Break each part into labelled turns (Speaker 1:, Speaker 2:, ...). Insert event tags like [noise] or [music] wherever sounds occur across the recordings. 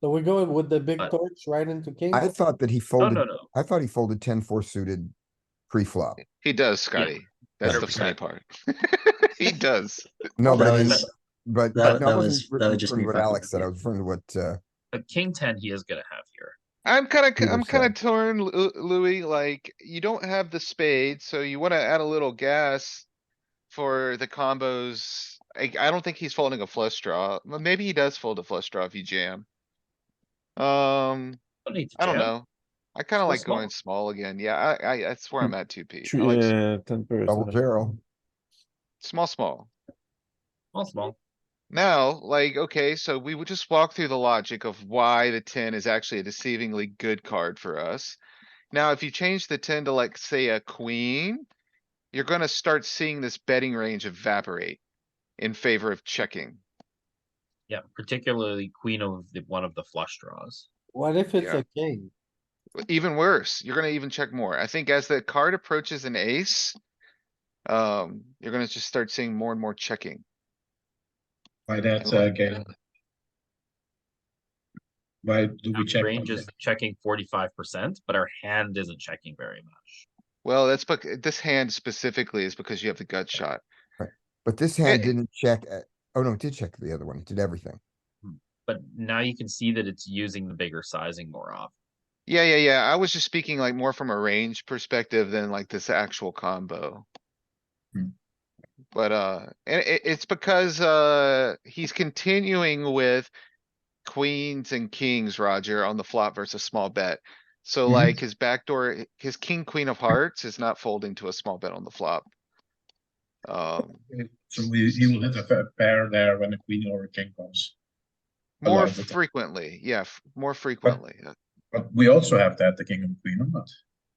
Speaker 1: So we go with the big
Speaker 2: But-
Speaker 1: torch right into king?
Speaker 3: I thought that he
Speaker 4: Oh,
Speaker 2: No,
Speaker 3: folded,
Speaker 2: no, no.
Speaker 3: I thought he folded ten four suited pre-flop.
Speaker 4: He does, Scotty. That's the funny
Speaker 2: 100%.
Speaker 4: part. [laughs] He does.
Speaker 3: No,
Speaker 5: That
Speaker 3: but I mean,
Speaker 5: was-
Speaker 3: but,
Speaker 5: that-
Speaker 3: but no,
Speaker 5: that
Speaker 3: I wasn't
Speaker 5: was- that would
Speaker 3: referring
Speaker 5: just
Speaker 3: to
Speaker 5: be
Speaker 3: what
Speaker 5: fine.
Speaker 3: Alex said, I was referring to what, uh,
Speaker 2: A king ten he is gonna have here.
Speaker 4: I'm kinda, c-
Speaker 3: Either
Speaker 4: I'm kinda
Speaker 3: side.
Speaker 4: torn, Lu- Louis, like, you don't have the spade, so you wanna add a little gas for the combos. I, I don't think he's folding a flush draw. Well, Maybe he does fold a flush draw if you jam. Um,
Speaker 2: Don't need to
Speaker 4: I don't
Speaker 2: jam.
Speaker 4: know. I kinda
Speaker 2: Go
Speaker 4: like
Speaker 2: small.
Speaker 4: going small again. Yeah, I, I, that's where I'm at two P.
Speaker 6: Three, uh, ten
Speaker 3: double
Speaker 6: percent.
Speaker 3: barrel.
Speaker 4: Small, small.
Speaker 2: Small, small.
Speaker 4: Now, like, okay, so we would just walk through the logic of why the ten is actually a deceivingly good card for us. Now, if you change the ten to like, say, a queen, you're gonna start seeing this betting range evaporate in favor of checking.
Speaker 2: Yeah, particularly queen of the, one of the flush draws.
Speaker 1: What if it's
Speaker 4: Yeah.
Speaker 1: a king?
Speaker 4: Even worse, you're gonna even check more. I think as the card approaches an ace, um, you're gonna just start seeing more and more checking.
Speaker 7: By that, uh, Galen. Why do
Speaker 2: Our
Speaker 7: we check?
Speaker 2: range is
Speaker 7: like
Speaker 2: checking forty-five percent, but our hand isn't checking very much.
Speaker 4: Well, that's, but this hand specifically is because you have the gut shot.
Speaker 3: But this hand
Speaker 4: Eh.
Speaker 3: didn't check, at- oh no, it did check the other one, it did everything.
Speaker 2: But now you can see that it's using the bigger sizing more often.
Speaker 4: Yeah, yeah, yeah. I was just speaking like more from a range perspective than like this actual combo.
Speaker 7: Hmm.
Speaker 4: But, uh, and it, it's because, uh, he's continuing with queens and kings, Roger, on the flop versus small bet. So
Speaker 7: Mhm.
Speaker 4: like his backdoor, his king, queen of hearts is not folding to a small bet on the flop. Um,
Speaker 7: that? So we, you will have a pair there when a queen or a king comes. A lot
Speaker 4: more
Speaker 7: of the time.
Speaker 4: frequently, yeah, f- more frequently. Uh,
Speaker 7: But we also have that, the king and queen, or not?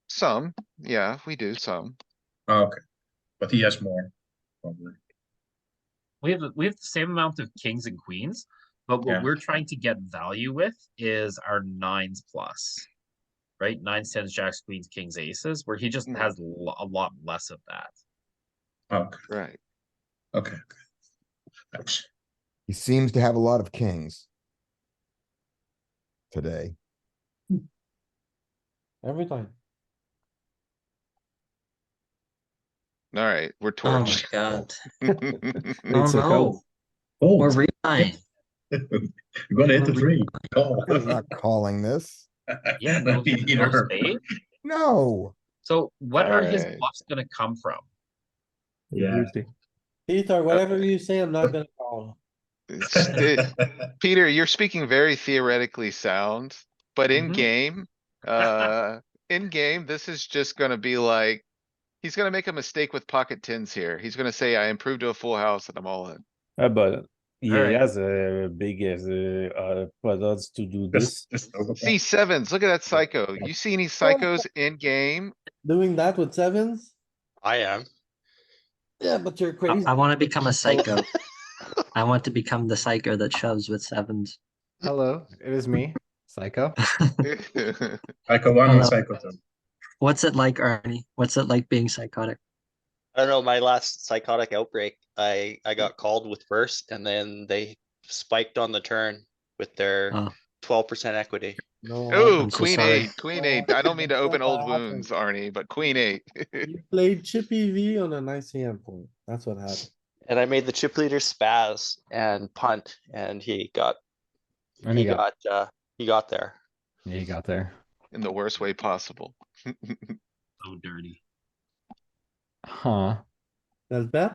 Speaker 4: Some, yeah, we do some.
Speaker 7: Ah, Okay, but he has more, probably.
Speaker 2: We have, we have the same amount of kings and queens, but what
Speaker 7: Yeah.
Speaker 2: we're trying to get value with is our nines plus. Right? Nines, tens, jacks, queens, kings, aces, where he just
Speaker 4: Mhm.
Speaker 2: has lo- a lot less of that.
Speaker 7: [laughs] Ah, Okay,
Speaker 4: Right.
Speaker 7: okay. okay. Thanks.
Speaker 3: He seems to have a lot of kings.
Speaker 5: [laughs]
Speaker 3: Today,
Speaker 1: Every time.
Speaker 4: Alright, we're
Speaker 5: Oh my
Speaker 7: [laughs]
Speaker 4: torched.
Speaker 5: god. Oh
Speaker 6: It's a
Speaker 5: no,
Speaker 6: call.
Speaker 7: Oh,
Speaker 5: we're
Speaker 7: [laughs]
Speaker 5: re-buying.
Speaker 7: you're gonna hit the three. Oh.
Speaker 3: I'm not calling this,
Speaker 2: [laughs] Yeah,
Speaker 7: [laughs]
Speaker 2: no, no
Speaker 7: Either.
Speaker 2: spade.
Speaker 3: no,
Speaker 2: So what are his
Speaker 4: Alright.
Speaker 2: bluffs gonna come from?
Speaker 7: [laughs] Yeah.
Speaker 1: Peter, whatever you say, I'm not gonna call.
Speaker 4: It's-
Speaker 7: [laughs]
Speaker 4: it- Peter, you're speaking very theoretically sound, but in
Speaker 2: Mhm.
Speaker 4: game, uh, in game, this is just gonna be like. He's gonna make a mistake with pocket tens here. He's gonna say, I improved to a full house and I'm all in.
Speaker 6: Uh, but yeah,
Speaker 2: Alright.
Speaker 6: he has a big as uh, uh, but odds to do this.
Speaker 7: Just- just over
Speaker 4: C sevens, look at that psycho. You see any psychos in game?
Speaker 1: Doing that with sevens?
Speaker 8: I am.
Speaker 1: Yeah, but you're
Speaker 5: I,
Speaker 1: crazy.
Speaker 5: I wanna become a psycho. [laughs] I want to become the psycho that shoves with sevens. [laughs]
Speaker 9: Hello, it is me, Psycho.
Speaker 7: Psycho one and
Speaker 5: Hello.
Speaker 7: psycho two.
Speaker 5: What's it like, Arnie? What's it like being psychotic?
Speaker 8: I don't know, my last psychotic outbreak, I, I got called with first and then they spiked on the turn with their
Speaker 5: Oh.
Speaker 8: twelve percent equity.
Speaker 4: Oh,
Speaker 5: I'm so
Speaker 4: queen
Speaker 5: sorry.
Speaker 4: eight, queen eight. I don't mean to open old wounds, Arnie, but queen eight. [laughs]
Speaker 1: You played chippy V on an ICM point. That's what happened.
Speaker 8: And I made the chip leader spaz and punt and he got,
Speaker 9: And
Speaker 8: he
Speaker 9: you got,
Speaker 8: got, uh, he got there.
Speaker 9: you got there.
Speaker 4: In the worst way possible.
Speaker 2: So dirty.
Speaker 9: Huh.
Speaker 1: That's bet?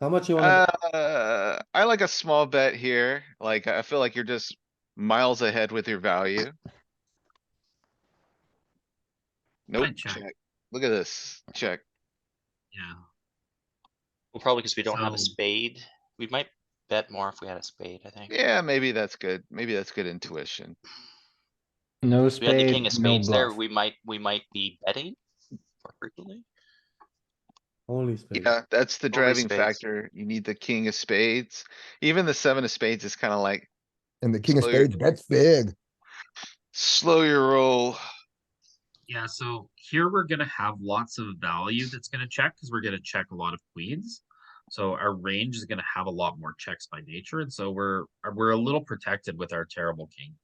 Speaker 1: How much you wanna,
Speaker 4: Uh, I like a small bet here. Like, I feel like you're just miles ahead with your value. Nope,
Speaker 2: Fine, check.
Speaker 4: check. Look at this, check.
Speaker 2: Yeah.
Speaker 8: Well, probably because we don't have a
Speaker 2: So-
Speaker 8: spade. We might bet more if we had a spade, I think.
Speaker 4: Yeah, maybe that's good. Maybe that's good intuition.
Speaker 9: No
Speaker 8: If we had the king
Speaker 9: spade,
Speaker 8: of
Speaker 9: no
Speaker 8: spades there,
Speaker 9: bluff.
Speaker 8: we might, we might be betting more frequently.
Speaker 1: only spade?
Speaker 4: Yeah, that's the
Speaker 8: Only
Speaker 4: driving
Speaker 8: spades.
Speaker 4: factor. You need the king of spades. Even the seven of spades is kinda like,
Speaker 3: and the king of
Speaker 4: So you're-
Speaker 3: spades, that's big.
Speaker 4: slow your roll.
Speaker 2: Yeah, so here we're gonna have lots of value that's gonna check because we're gonna check a lot of queens. So our range is gonna have a lot more checks by nature, and so we're uh, we're a little protected with our terrible king.